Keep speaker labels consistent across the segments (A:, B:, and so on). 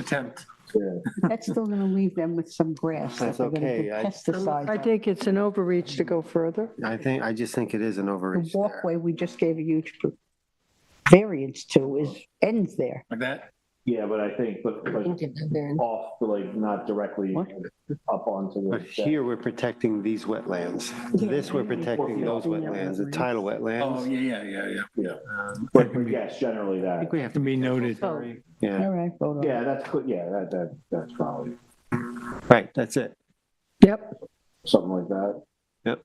A: attempt.
B: That's still going to leave them with some grass. that
C: That's
B: they're gonna
C: okay.
B: put
C: I-
B: Pesticides.
D: I
B: on.
D: think it's an overreach to go further.
C: I think, I just think it is an
B: The
C: overreach there.
B: walkway we just gave a huge variance to is, ends there.
A: Like that?
E: Yeah, but I think, but, but off, like, not directly
B: What?
E: up onto the.
C: But here, we're protecting these wetlands. This, we're protecting those wetlands, the tidal
A: Oh,
C: wetlands.
A: yeah, yeah, yeah, yeah, yeah. Um,
E: But but yes, generally that,
C: we have to.
F: Be noted.
C: Yeah,
B: All right, vote on it.
E: yeah, that's, cou- yeah, that, that, that's probably
C: right, that's it.
D: Yep,
E: something like that.
C: Yep.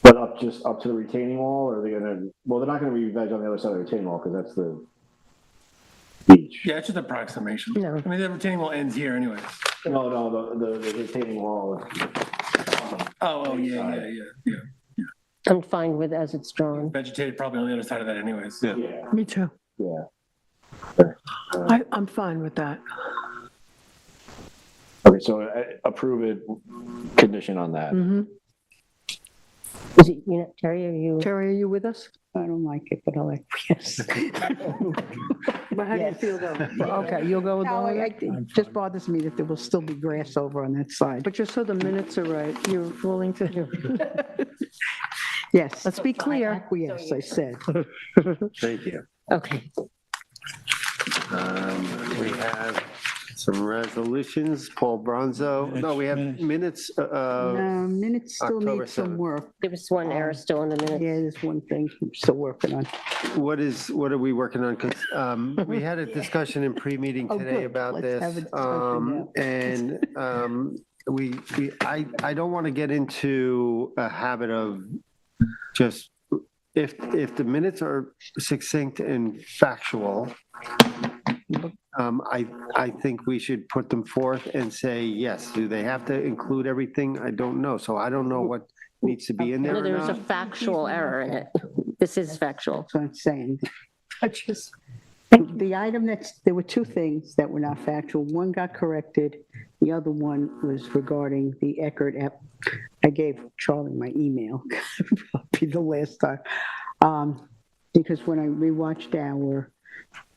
E: But up just, up to the retaining wall, or are they gonna, well, they're not gonna be veg on the other side of the retaining wall, because that's the beach.
A: Yeah, it's just approximation.
D: No.
A: I mean, the retaining wall ends here anyway.
E: No, no, the, the the retaining wall.
A: Oh, oh, yeah, yeah, yeah, yeah.
G: I'm fine with as it's drawn.
A: Vegetated probably on the other side of that anyways.
C: Yeah.
E: Yeah,
D: me too.
E: yeah.
D: I, I'm fine with that.
E: Okay, so uh, approve it, condition on
C: Mm.
E: that.
D: hmm
G: Is it, you know, Terry, are you,
D: Terry, are you with us?
B: I don't like it, but I'll acquiesce.
D: Well, how do you
B: Yes.
D: feel though?
B: Okay, you'll go with
D: No, I- I
B: that? It just bothers me that there will still be grass over on that side.
D: But just so the minutes are right, you're willing to,
B: Yes.
D: let's be clear.
B: Acquiesce, I said.
C: Thank you.
G: okay,
C: Um, We have some resolutions, Paul Bronzo. No, we have minutes, uh, uh,
B: Uh, Minutes still
C: October
B: need some
C: 7th.
B: work.
G: there was one error still in the minute.
B: Um, Yeah, there's one thing I'm still working on.
C: what is, what are we working on? 'Cause, um, we had a discussion in pre-meeting
B: Oh,
C: today
B: good.
C: about
B: Let's have a
C: this.
B: discussion
C: Um,
B: now.
C: and, um, we, we, I, I don't want to get into a habit of just, if, if the minutes are succinct and factual, um, I, I think we should put them forth and say, yes, do they have to include everything? I don't know. So I don't know what needs to be in there
G: No,
C: or
G: there was a
C: not.
G: factual error in it. This is factual.
B: That's what I'm saying. I just, the item that's, there were two things that were not factual. One got corrected. The other one was regarding the Eckert app. I gave Charlie my email, probably the last time. Um, Because when I rewatched our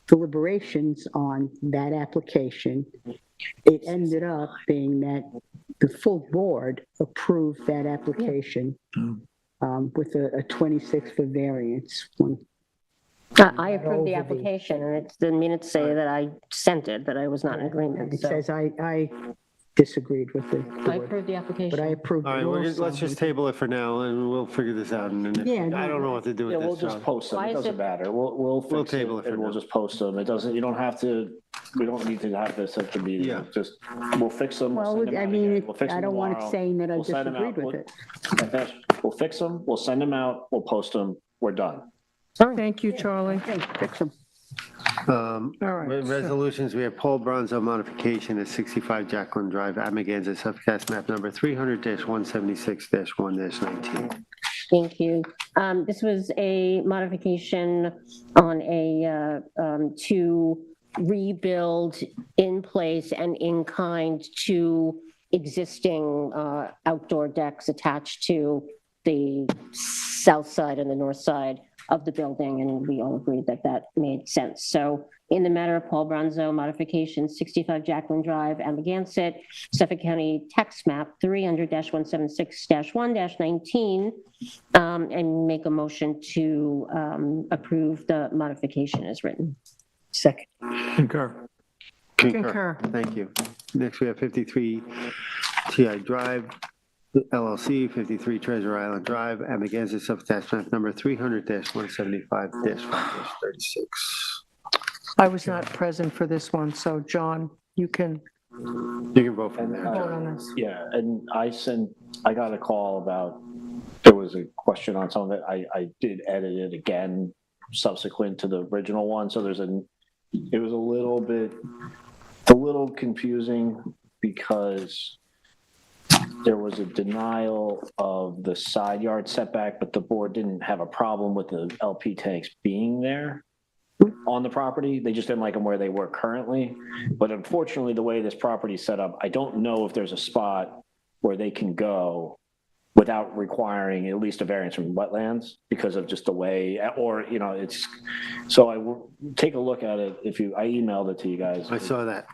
B: deliberations on that application, it ended up being that the full board approved that application um, with a a 26 for variance, one
G: I I approved the
B: Over the-
G: application and it's, the minutes say that I dissented, that I was not in agreement.
B: It
G: So
B: says I, I disagreed with the
G: I
B: board,
G: approved the
B: but I
G: application.
B: approved
C: All
B: it
C: right, we're, just- let's
B: also.
C: just table it for now and we'll figure this out. And then
B: Yeah,
C: if- I
B: no,
C: don't know what to do
E: Yeah,
C: with
E: we'll
C: this.
E: just
C: so-
E: post them.
G: Why
E: It
G: is
E: doesn't
G: it-
E: matter. We'll, we'll
C: We'll
E: fix it
C: table it for
E: and we'll
C: now.
E: just post them. It doesn't, you don't have to, we don't need to have this at the meeting.
C: Yeah.
E: Just, we'll fix them. we'll
B: Well,
E: send them
B: I
E: out
B: mean,
E: again,
B: it-
E: we'll fix
B: I
E: them
B: don't want it
E: tomorrow.
B: saying that I
E: We'll send them
B: disagreed
E: out.
B: with it.
E: And that's- We'll fix them, we'll send them out, we'll post them, we're done.
D: Thank you, Charlie.
B: Hey, fix 'em.
C: Um,
D: All right,
C: re-
D: so-
C: Resolutions, we have Paul Bronzo modification at 65 Jacqueline Drive, Amagansett, subcast map number 300-176-1-19.
G: Thank you. Um, This was a modification on a, uh, um, to rebuild in place and in kind to existing uh, outdoor decks attached to the south side and the north side of the building, and we all agreed that that made sense. So in the matter of Paul Bronzo modification, 65 Jacqueline Drive, Amagansett, Suffolk County Tax Map 300-176-1-19, um, and make a motion to um, approve the modification as written.
B: Second,
F: Concur.
D: Concur.
C: Thank you. Next, we have 53 TI Drive LLC, 53 Treasure Island Drive, Amagansett, subcast map number 300-175-5-36.
D: I was not present for this one, so John, you can
C: You can vote from there,
D: vote
C: John.
D: on this.
E: Yeah, and I sent, I got a call about, there was a question on some of it. I, I did edit it again subsequent to the original one, so there's a, it was a little bit, it's a little confusing because there was a denial of the side yard setback, but the board didn't have a problem with the LP tanks being there on the property. They just didn't like them where they were currently. But unfortunately, the way this property is set up, I don't know if there's a spot where they can go without requiring at least a variance from wetlands because of just the way, or, you know, it's, so I will take a look at it if you, I emailed it to you guys.
C: I saw that.